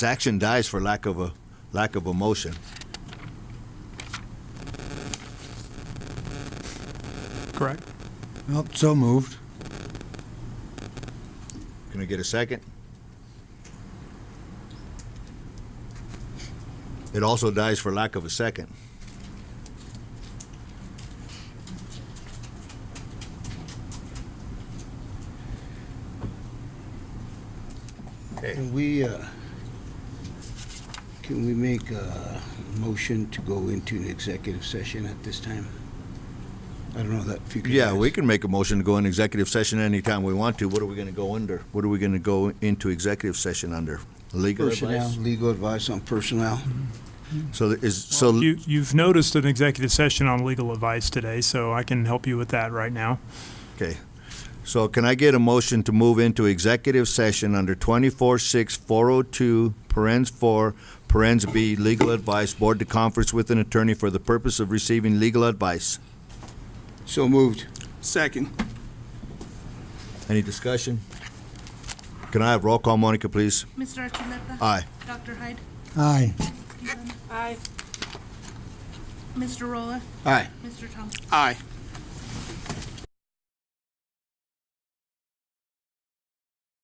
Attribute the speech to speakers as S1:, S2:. S1: His action dies for lack of a, lack of a motion.
S2: correct?
S3: Well, so moved.
S1: Can I get a second? It also dies for lack of a second.
S4: Can we, uh, can we make a motion to go into an executive session at this time? I don't know that if you could.
S1: Yeah, we can make a motion to go in executive session anytime we want to. What are we gonna go under? What are we gonna go into executive session under? Legal
S4: Personnel,
S1: advice?
S4: legal advice on personnel.
S1: So there is, so,
S2: You, you've noticed an executive session on legal advice today, so I can help you with that right now.
S1: okay. So can I get a motion to move into executive session under twenty-four six four oh two, parens four, parens B, legal advice, board to conference with an attorney for the purpose of receiving legal advice?
S4: So moved.
S5: Second.
S1: Any discussion? Can I have roll call, Monica, please?
S6: Mr. Archuleta?
S1: Aye.
S6: Dr. Hyde?
S3: Aye.
S6: Aye. Mr. Rolla?
S4: Aye.
S6: Mr. Thompson?
S5: Aye.